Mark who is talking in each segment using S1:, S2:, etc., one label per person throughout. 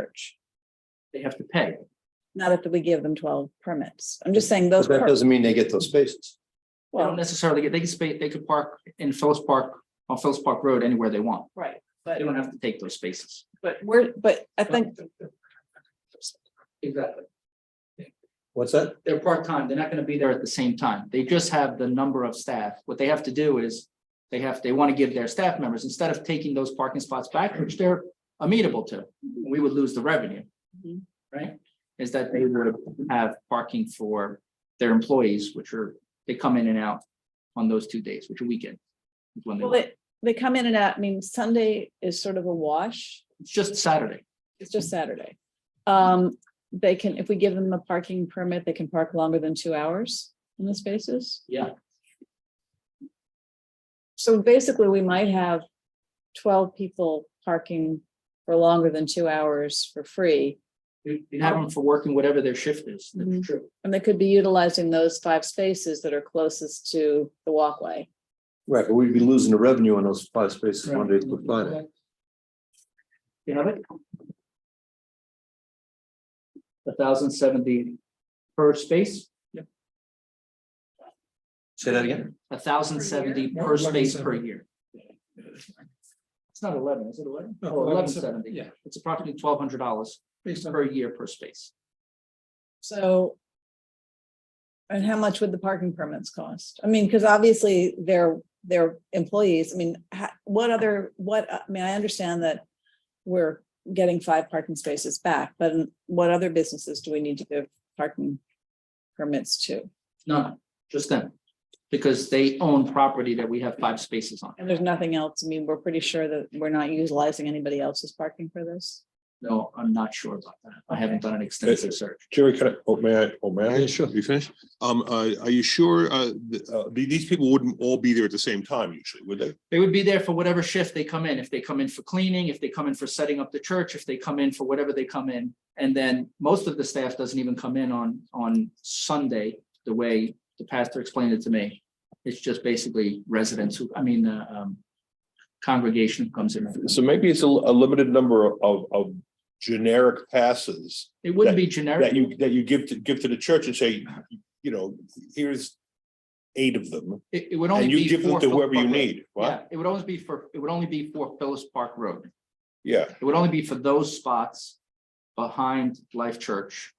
S1: search,
S2: They have to pay.
S1: not if we give them twelve permits. I'm just saying those.
S3: But that
S1: per-
S3: doesn't mean they get those spaces.
S2: They don't
S1: Well,
S2: necessarily get, they can space, they could park in Phillips Park, on Phillips Park Road anywhere they want.
S1: right,
S2: They
S1: but,
S2: don't have to take those spaces.
S1: but we're, but I think,
S2: Exactly.
S3: What's that?
S2: They're part-time. They're not gonna be there at the same time. They just have the number of staff. What they have to do is they have, they want to give their staff members, instead of taking those parking spots back, which they're amenable to, we would lose the revenue.
S1: Mhm.
S2: Right? Is that they would have parking for their employees, which are, they come in and out on those two days, which are weekend. is when they
S1: well,
S2: work.
S1: they, they come in and out, I mean, Sunday is sort of a wash.
S2: It's just Saturday.
S1: It's just Saturday. Um, they can, if we give them a parking permit, they can park longer than two hours in the spaces.
S2: Yeah.
S1: So basically, we might have twelve people parking for longer than two hours for free.
S2: You you have them for working whatever their shift is.
S1: Mhm.
S2: That's true.
S1: And they could be utilizing those five spaces that are closest to the walkway.
S3: Right, but we'd be losing the revenue on those five spaces Monday through Friday.
S2: You have it? A thousand seventy per space,
S3: Say that again?
S2: a thousand seventy
S4: Per year?
S2: per space per
S4: 1170.
S2: year. It's not eleven, is it eleven?
S4: No,
S2: Oh, eleven
S4: 1170,
S2: seventy.
S4: yeah.
S2: It's approximately twelve hundred dollars
S4: Based on,
S2: per year per space.
S1: So. And how much would the parking permits cost? I mean, because obviously they're, they're employees. I mean, ha- what other, what, I mean, I understand that. We're getting five parking spaces back, but what other businesses do we need to give parking permits to?
S2: None, just them. Because they own property that we have five spaces on.
S1: And there's nothing else. I mean, we're pretty sure that we're not utilizing anybody else's parking for this.
S2: No, I'm not sure about that. I haven't done an extensive search.
S5: Jerry, can I, oh, may I, oh, may I?
S6: Yeah, sure.
S5: You finished?
S6: Um, uh, are you sure, uh, th- uh, the- these people wouldn't all be there at the same time usually, would they?
S2: They would be there for whatever shift they come in. If they come in for cleaning, if they come in for setting up the church, if they come in for whatever they come in. And then most of the staff doesn't even come in on, on Sunday, the way the pastor explained it to me. It's just basically residents who, I mean, uh, um, congregation comes in.
S5: So maybe it's a, a limited number of, of generic passes
S2: It wouldn't be generic.
S5: that you, that you give to, give to the church and say, you know, here's eight of them,
S2: It, it would only
S5: and
S2: be.
S5: you give them
S2: for
S5: to whoever you
S2: Phillips Park Road.
S5: need. What?
S2: Yeah, it would always be for, it would only be for Phillips Park Road.
S5: Yeah,
S2: It would only be for those spots behind Life Church,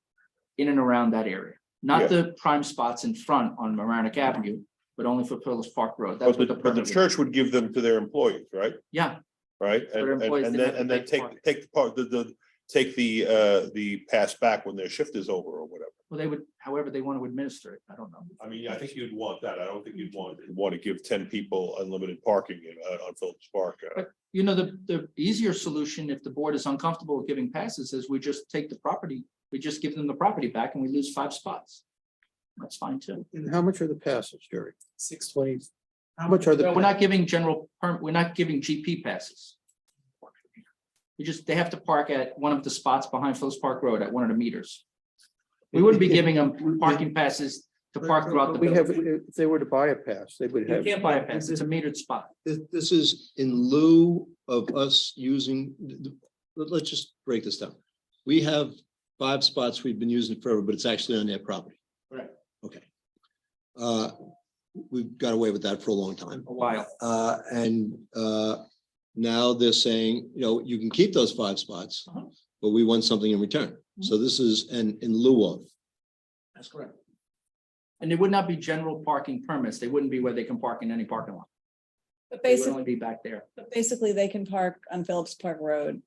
S2: in and around that area.
S5: Yeah.
S2: Not the prime spots in front on Maranic Avenue, but only for Phillips Park Road. That's what
S5: but the,
S2: the
S5: but the
S2: permit is.
S5: church would give them to their employees, right?
S2: Yeah,
S5: Right? And,
S2: their
S5: and-
S2: employees,
S5: and
S2: they'd
S5: then,
S2: have to
S5: and then
S2: pay
S5: take,
S2: for it.
S5: take the part, the, the, take the, uh, the pass back when their shift is over or whatever.
S2: well, they would, however they want to administer it. I don't know.
S5: I mean, I think you'd want that. I don't think you'd want, want to give ten people unlimited parking in, uh, on Phillips Park. uh,
S2: You know, the, the easier solution, if the board is uncomfortable with giving passes, is we just take the property, we just give them the property back and we lose five spots. That's fine too.
S4: and how much are the passes, Jerry? Six twenty. How much are the?
S2: No, We're not giving general perm, we're not giving GP passes. You just, they have to park at one of the spots behind Phillips Park Road at one of the meters. We wouldn't be giving them parking passes to park throughout the
S4: We have,
S2: building.
S4: if they were to buy a pass, they would
S2: You
S4: have.
S2: can't buy a pass, it's a metered spot.
S3: This, this is in lieu of us using, let, let's just break this down. We have five spots we've been using forever, but it's actually on their property.
S2: Right.
S3: Okay. Uh, we've got away with that for a long time.
S2: A while,
S3: Uh, and, uh, now they're saying, you know, you can keep those five spots,
S2: Uh-huh.
S3: but we want something in return. So this is an in lieu of.
S2: that's correct. And they would not be general parking permits, they wouldn't be where they can park in any parking lot.
S1: But
S2: They would
S1: basically,
S2: only be back there.
S1: but basically they can park on Phillips Park Road.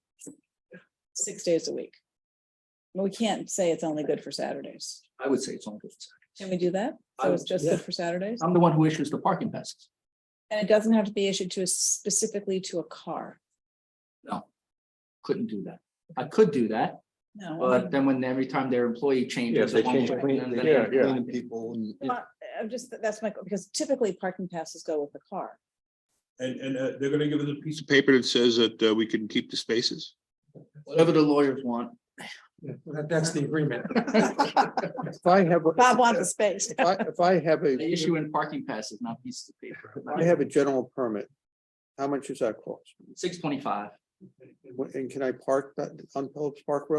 S1: Six days a week. But we can't say it's only good for Saturdays.
S2: I would say it's only. good for Saturdays.
S1: Can we do that?
S2: I
S1: So
S2: would-
S1: it's just good for Saturdays?
S2: I'm the one who issues the parking passes.
S1: And it doesn't have to be issued to a specifically to a car.
S2: No. Couldn't do that. I could do that,
S1: No. I
S2: But
S1: mean,
S2: then when every time their employee changes.
S5: Yeah, if they
S2: the one
S5: change
S2: way,
S5: clean-
S2: then they-
S5: yeah, yeah.
S3: Cleaning people and-
S1: I- I'm just, that's my, because typically parking passes go with the car.
S6: And, and, uh, they're gonna give us a piece of paper that says that, uh, we can keep the spaces.
S2: Whatever the lawyers want.
S4: Yeah, that- That's the agreement. If I have. a-
S1: Bob wants a space.
S4: If I, if I have a,
S2: They issue in parking passes, not pieces of paper.
S4: I have a general permit, how much does that cost?
S2: Six twenty-five,
S4: And can I park that on Phillips Park Road?